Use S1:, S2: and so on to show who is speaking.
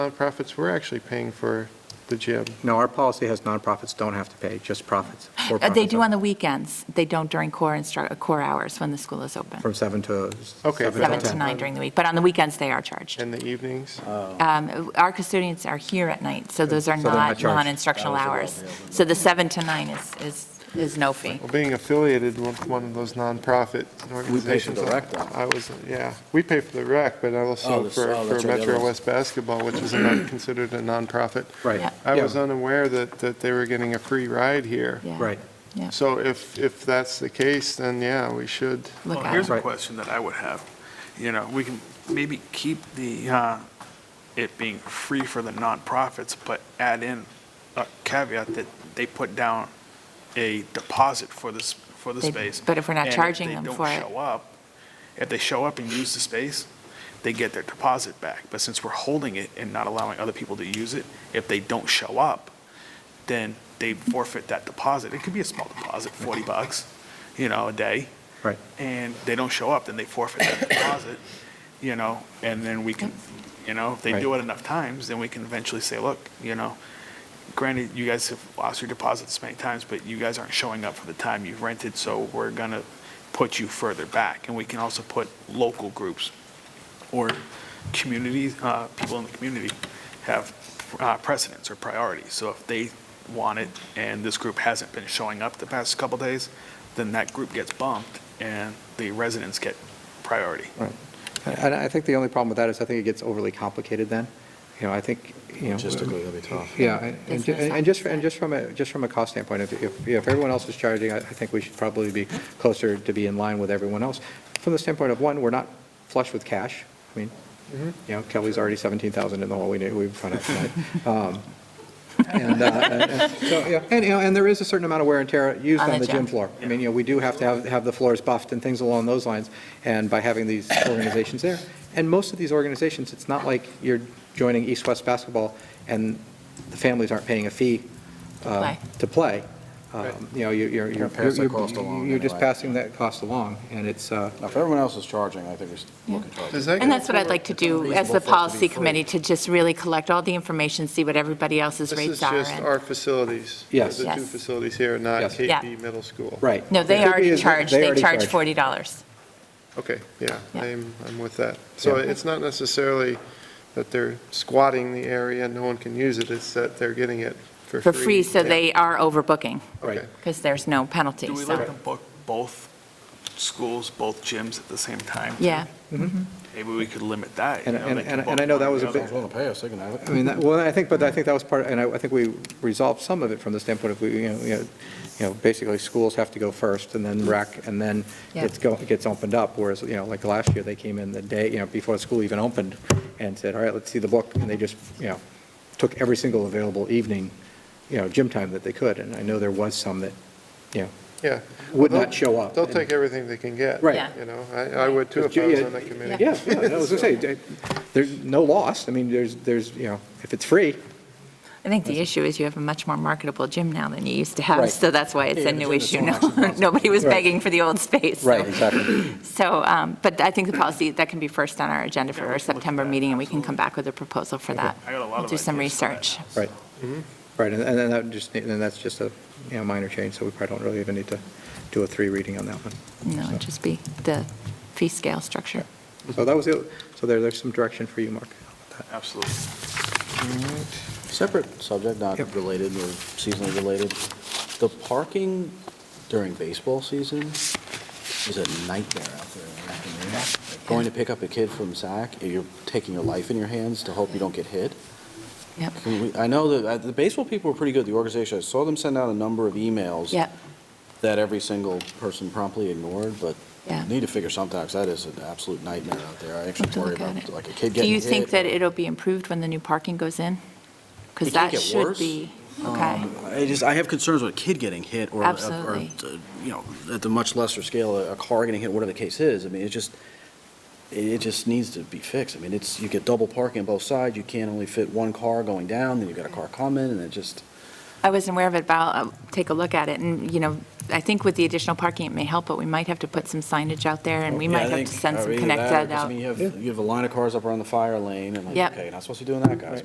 S1: nonprofits were actually paying for the gym.
S2: No, our policy has nonprofits don't have to pay, just profits. for
S3: Uh, They
S2: profits
S3: do on the weekends. They don't during core instru, core hours when the school is open.
S2: From seven to.
S1: Okay,
S2: seven
S1: but-
S3: Seven to
S2: ten.
S3: nine during the week, but on the weekends, they are charged.
S1: In the evenings?
S3: Um, Our custodians are here at night, so those are
S2: So they're not
S3: not
S2: charged.
S3: non-instructional hours. So the seven to nine is, is, is no fee.
S1: Well, being affiliated with one of those nonprofit organizations.
S4: rec, though.
S1: I was, yeah, we pay for the rec, but
S4: Oh,
S1: also
S4: that's-
S1: for
S4: oh,
S1: for
S4: that's right, the
S1: Metro
S4: other
S1: West Basketball, which is not considered a nonprofit.
S3: Yeah.
S2: Right.
S1: I
S2: yeah,
S1: was unaware that, that they were getting a free ride here.
S3: Yeah.
S2: Right.
S1: So if, if that's the case, then yeah, we should.
S3: Look
S5: Well,
S3: at
S5: here's
S3: it.
S5: a
S2: Right.
S5: question that I would have. You know, we can maybe keep the, uh, it being free for the nonprofits, but add in a caveat that they put down a deposit for this, for the
S3: They-
S5: space.
S3: but if we're not
S5: And
S3: charging them for
S5: they
S3: it-
S5: don't show up, if they show up and use the space, they get their deposit back. But since we're holding it and not allowing other people to use it, if they don't show up, then they forfeit that deposit. It could be a small deposit, 40 bucks, you know, a day
S2: Right.
S5: and they don't show up, then they forfeit that deposit, you know, and then we can, you know, if they do it enough times, then we can eventually say, look, you know, granted, you guys have lost your deposits many times, but you guys aren't showing up for the time you've rented, so we're gonna put you further back. And we can also put local groups or communities, uh, people in the community have uh, precedence or priority. So if they want it and this group hasn't been showing up the past couple days, then that group gets bumped and the residents get priority.
S2: And I think the only problem with that is I think it gets overly complicated then. You know, I think, you know.
S4: Logistically, that'd be tough.
S2: Yeah, and- and ju-
S3: Business
S2: and just, and just from a, just from a cost standpoint, if- if, if everyone else is charging, I I think we should probably be closer to be in line with everyone else. From the standpoint of, one, we're not flush with cash. I mean, you know, Kelly's already 17,000 in the hole, we knew, we found out tonight. Um, And, uh, and- and- so, yeah, and, you know, and there is a certain amount of wear and tear used on the gym floor. I mean, you know, we do have to have, have the floors buffed and things along those lines, and by having these organizations there. And most of these organizations, it's not like you're joining East-West Basketball and the families aren't paying a fee uh,
S3: Play.
S2: to play. Um, You know, you- you're,
S4: You're
S2: you're,
S4: gonna pass the cost
S2: you're
S4: along
S2: you're just
S4: anyway.
S2: passing that cost along, and it's, uh,
S4: Now, if everyone else is charging, I think we should look at charging.
S1: Does that
S3: And
S1: get-
S3: that's what I'd like to do as
S4: Reasonable for it
S3: the
S4: to be
S3: policy
S4: free.
S3: committee, to just really collect all the information, see what everybody else's
S1: This is
S3: rates are.
S1: just
S3: and-
S1: our facilities.
S2: Yes.
S1: The two
S3: Yes.
S1: facilities here, not
S2: Yes.
S3: Yeah.
S1: KP Middle School.
S2: right.
S3: No, they
S2: It could be
S3: already
S2: as-
S3: charge, they
S2: already
S3: charge $40.
S1: Okay, yeah,
S3: Yeah.
S1: I'm, I'm with that. So
S2: Yeah.
S1: it's not necessarily that they're squatting the area, no one can use it, it's that they're getting it for free.
S3: For free, so they are overbooking,
S2: Right.
S1: Okay.
S3: because there's no penalty,
S5: Do we
S3: so-
S5: let them book both schools, both gyms at the same time?
S3: Yeah,
S2: Mm-hmm.
S5: Maybe we could limit that. you
S2: And-
S5: know,
S2: and-
S5: they can
S2: and-
S5: book
S2: and I know
S5: one
S2: that
S5: or
S2: was
S5: the
S2: a
S5: other.
S2: bit-
S4: Someone's willing to pay us, they can have it.
S2: I mean, that- well, I think, but I think that was part, and I I think we resolved some of it from the standpoint of, we, you know, you know, you know, basically schools have to go first and then rec, and then
S3: Yeah.
S2: it's go, it gets opened up, whereas, you know, like last year, they came in the day, you know, before school even opened and said, all right, let's see the book, and they just, you know, took every single available evening, you know, gym time that they could, and I know there was some that, you know,
S1: Yeah.
S2: would
S1: Well,
S2: not show up.
S1: They'll take everything they can get.
S2: Right.
S3: Yeah.
S1: You know, I, I would too if I was on that committee.
S2: Yeah, yeah, I was gonna say, there's no loss, I mean, there's, there's, you know, if it's free,
S3: I think the issue is you have a much more marketable gym now than you used to have,
S2: Right.
S3: so that's why it's
S4: Yeah,
S3: a
S4: the
S3: new
S4: gym is
S3: issue
S4: so
S3: now.
S4: much more expensive.
S3: Nobody was
S2: Right.
S3: begging for the old space. so-
S2: Right, exactly.
S3: So, um, but I think the policy, that can be first on our agenda for
S5: Yeah, we
S3: our
S5: can look at
S3: September
S5: that,
S3: meeting, and we can come back with a proposal for that.
S5: I got a lot
S3: We'll
S5: of
S3: Do some
S5: ideas for that.
S3: research.
S2: Right. Right, and and then that just, need- and that's just a, you know, minor change, so we probably don't really even need to do a three reading on that one.
S3: No, it'd just be the fee scale structure.
S2: So that was, the so there, there's some direction for you, Mark.
S5: Absolutely.
S4: Separate subject, not
S2: Yep.
S4: related or seasonally related. The parking during baseball season is a nightmare out there. in the afternoon. Like, Going to pick up a kid from SAC, eh, you're taking your life in your hands to hope you don't get hit.
S3: Yep,
S4: Can we- I know that, uh, the baseball people were pretty good, the organization. I saw them send out a number of emails.
S3: yep,
S4: That every single person promptly ignored, but
S3: yeah.
S4: Need to figure something out, 'cause that is an absolute nightmare out there. I
S3: Have to
S4: actually worry
S3: look at
S4: about,
S3: it.
S4: like, a kid
S3: Do
S4: getting
S3: you
S4: hit.
S3: think that it'll be improved when the new parking goes in? Because
S4: It can't
S3: that
S4: get
S3: should
S4: worse. Um,
S3: be, okay,
S4: I just, I have concerns with a kid getting hit, or, a- or,
S3: Absolutely.
S4: uh, you know, at the much lesser scale, a a car getting hit, whatever the case is. I mean, it just, it it just needs to be fixed. I mean, it's, you get double parking on both sides, you can't only fit one car going down, then you've got a car coming, and it just,
S3: I wasn't aware of it, but I'll uh, take a look at it, and, you know, I think with the additional parking, it may help, but we might have to put some signage out there, and we
S4: Yeah, I
S3: might have
S4: think-
S3: to send
S4: or
S3: some
S4: either
S3: connect
S4: that or-
S3: that
S4: 'cause I
S3: out.
S4: mean, you have, you have a line of cars up around the fire lane, and like,
S3: Yep.
S4: okay, you're not supposed to be doing that, guys.